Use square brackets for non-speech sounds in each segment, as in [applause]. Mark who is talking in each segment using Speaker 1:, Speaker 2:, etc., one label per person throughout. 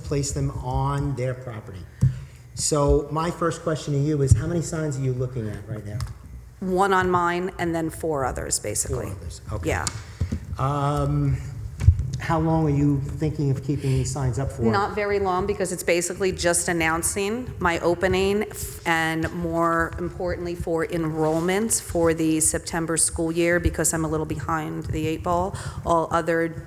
Speaker 1: place them on their property. So my first question to you is, how many signs are you looking at right now?
Speaker 2: One on mine and then four others,
Speaker 1: Four
Speaker 2: basically.
Speaker 1: others, okay.
Speaker 2: Yeah,
Speaker 1: Um, How long are you thinking of keeping these signs up for?
Speaker 2: not very long because it's basically just announcing my opening f- and more importantly for enrollment for the September school year because I'm a little behind the eight ball. All other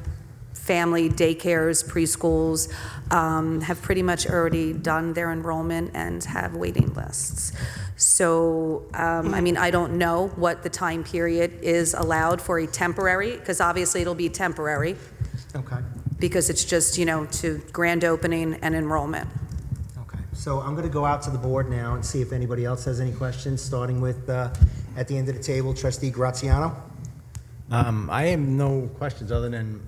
Speaker 2: family daycares, preschools um, have pretty much already done their enrollment and have waiting lists. So, um, I mean, I don't know what the time period is allowed for a temporary, because obviously it'll be temporary.
Speaker 1: Okay,
Speaker 2: because it's just, you know, to grand opening and enrollment.
Speaker 1: okay. So I'm going to go out to the board now and see if anybody else has any questions, starting with, uh, at the end of the table, trustee Graziano?
Speaker 3: Um, I have no questions other than,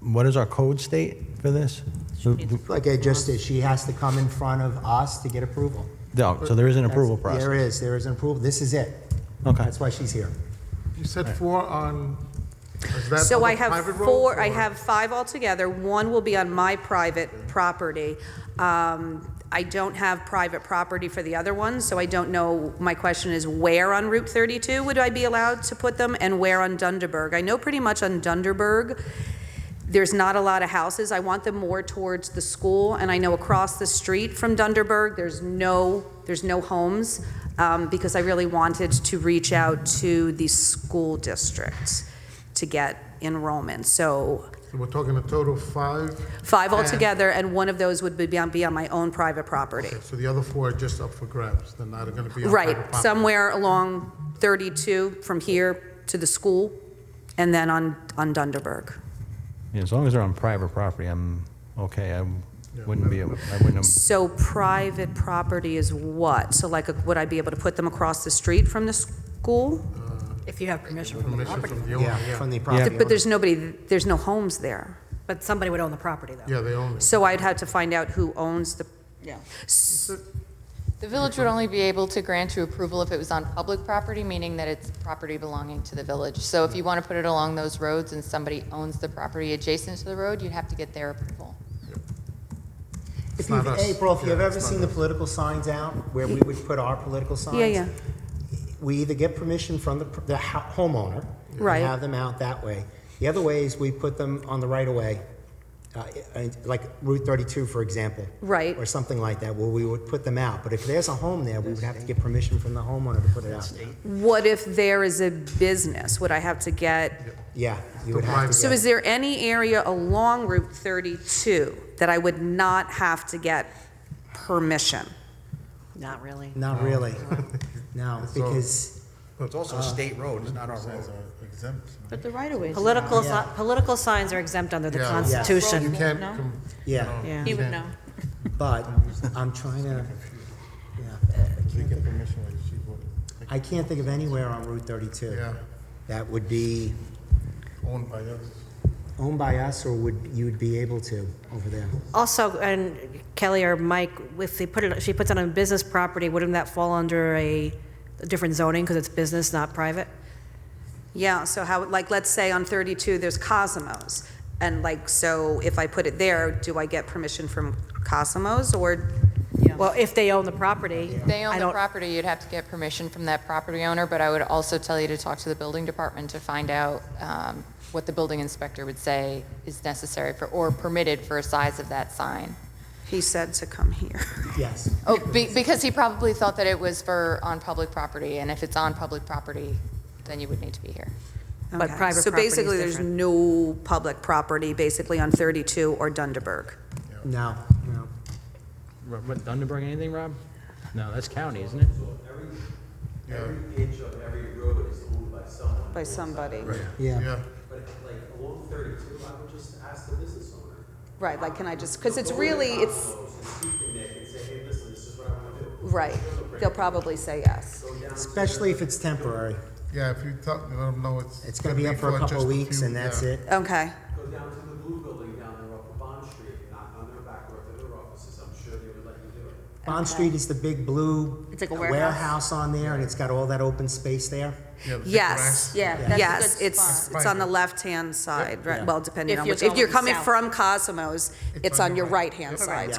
Speaker 3: what does our code state for this? So,
Speaker 1: Like I just did, she has to come in front of us to get approval.
Speaker 3: no, oh, so there is an approval
Speaker 1: That's- There
Speaker 3: process.
Speaker 1: is, there is an approval, this is it.
Speaker 3: Okay.
Speaker 1: That's why she's here.
Speaker 4: You said four on, is that
Speaker 2: So
Speaker 4: on
Speaker 2: I
Speaker 4: the private
Speaker 2: have
Speaker 4: roads,
Speaker 2: four, I
Speaker 4: or-
Speaker 2: have five altogether. One will be on my private property. Um, I don't have private property for the other ones, so I don't know, my question is where on Route 32 would I be allowed to put them and where on Dunderberg? I know pretty much on Dunderberg, there's not a lot of houses. I want them more towards the school, and I know across the street from Dunderberg, there's no, there's no homes, um, because I really wanted to reach out to the school district to get enrollment. So
Speaker 4: So We're talking a total of five,
Speaker 2: five altogether, and one of those would be on, be on my own private property.
Speaker 4: so the other four are just up for grabs, they're not gonna be on private
Speaker 2: Right,
Speaker 4: property.
Speaker 2: somewhere along 32 from here to the school, and then on, on Dunderberg.
Speaker 3: Yeah, As long as they're on private property, I'm okay. I wouldn't be, I wouldn't,
Speaker 2: So private property is what? So like, uh, would I be able to put them across the street from the school?
Speaker 5: If you have permission from the
Speaker 4: Permission
Speaker 5: property.
Speaker 4: from the owner,
Speaker 1: Yeah,
Speaker 4: yeah,
Speaker 1: from the property
Speaker 2: But there's nobody, there's no homes there.
Speaker 5: But somebody would own the property, though.
Speaker 4: yeah, they own it.
Speaker 2: So I'd have to find out who owns the,
Speaker 6: Yeah.
Speaker 2: S-
Speaker 6: The village would only be able to grant you approval if it was on public property, meaning that it's property belonging to the village. So if you want to put it along those roads and somebody owns the property adjacent to the road, you'd have to get their approval.
Speaker 1: If
Speaker 4: It's
Speaker 1: you've,
Speaker 4: not us.
Speaker 1: April, if
Speaker 4: Yeah,
Speaker 1: you've ever
Speaker 4: it's
Speaker 1: seen the
Speaker 4: not
Speaker 1: political signs out, where we would put our political signs.
Speaker 2: Yeah, yeah.
Speaker 1: We either get permission from the, the ho- homeowner. and
Speaker 2: Right.
Speaker 1: Have them out that way. The other way is we put them on the right of way, uh, and- like Route thirty-two, for example.
Speaker 2: Right.
Speaker 1: Or something like that, where we would put them out. But if there's a home there, we would have to get permission from the homeowner to put it out.
Speaker 2: what if there is a business? Would I have to get?
Speaker 1: Yeah, you would have to.
Speaker 2: So
Speaker 1: get-
Speaker 2: is there any area along Route 32 that I would not have to get permission?
Speaker 5: Not really.
Speaker 1: Not
Speaker 4: [laughs]
Speaker 1: really. No, because,
Speaker 7: It's also
Speaker 3: Uh,
Speaker 7: a state road, it's not our road.
Speaker 4: Those are Exempt.
Speaker 8: But the right of ways.
Speaker 5: Political, si-
Speaker 1: Yeah.
Speaker 5: political signs are exempt under the
Speaker 4: Yeah. You
Speaker 5: Constitution.
Speaker 4: can't,
Speaker 8: No?
Speaker 4: com-
Speaker 1: yeah,
Speaker 5: Yeah.
Speaker 8: He would know.
Speaker 1: but I'm trying to,
Speaker 4: they get permission, like, she would, like,
Speaker 1: I can't think of anywhere on Route thirty-two.
Speaker 4: Yeah.
Speaker 1: That would be
Speaker 4: owned by us.
Speaker 1: owned by us or would, you would be able to over there?
Speaker 5: Also, and Kelly or Mike, if they put it, if she puts it on business property, wouldn't that fall under a different zoning because it's business, not private?
Speaker 2: Yeah, so how, like, let's say on 32, there's Cosmos. And like, so if I put it there, do I get permission from Cosmos or?
Speaker 5: Well, if they own the property.
Speaker 6: If
Speaker 5: I
Speaker 6: they own the
Speaker 5: don't-
Speaker 6: property, you'd have to get permission from that property owner, but I would also tell you to talk to the building department to find out um, what the building inspector would say is necessary for, or permitted for a size of that sign.
Speaker 2: He said to come here.
Speaker 1: Yes.
Speaker 6: Oh, be- because he probably thought that it was for, on public property, and if it's on public property, then you would need to be here.
Speaker 5: But
Speaker 2: Okay,
Speaker 5: private
Speaker 2: So
Speaker 5: property is
Speaker 2: basically, there's
Speaker 5: different.
Speaker 2: no public property, basically, on 32 or Dunderberg.
Speaker 1: No, no.
Speaker 3: what, Dunderberg, anything, Rob? No, that's county, isn't it?
Speaker 4: Yeah.
Speaker 9: Every inch of every road is owned by someone.
Speaker 2: By somebody.
Speaker 1: Yeah.
Speaker 9: But like along thirty-two, I would just ask the business owner.
Speaker 2: Right, like, can I just, because it's really, it's,
Speaker 9: Close and speak to Nick and say, hey, listen, this is what I want to do.
Speaker 2: right. They'll probably say yes.
Speaker 1: Especially if it's temporary.
Speaker 4: Yeah, if you talk, let them know it's.
Speaker 1: It's gonna be up for a couple
Speaker 4: just
Speaker 1: of weeks
Speaker 4: few-
Speaker 1: and that's
Speaker 4: yeah.
Speaker 1: it.
Speaker 2: Okay.
Speaker 9: Go down to the blue building down there off of Bond Street, knock on their back door, to their offices, I'm sure they would let you do it.
Speaker 1: Bond Street is the big blue
Speaker 8: It's like a warehouse.
Speaker 1: warehouse on there, and it's got all that open space there?
Speaker 2: Yes.
Speaker 8: Yeah, that's a good
Speaker 2: Yes, it's,
Speaker 8: spot.
Speaker 2: it's on the left-hand side, right, well, depending
Speaker 8: If
Speaker 2: on
Speaker 8: you're
Speaker 2: which, if you're
Speaker 8: going
Speaker 2: coming
Speaker 8: south.
Speaker 2: from Cosmos, it's on your right-hand side,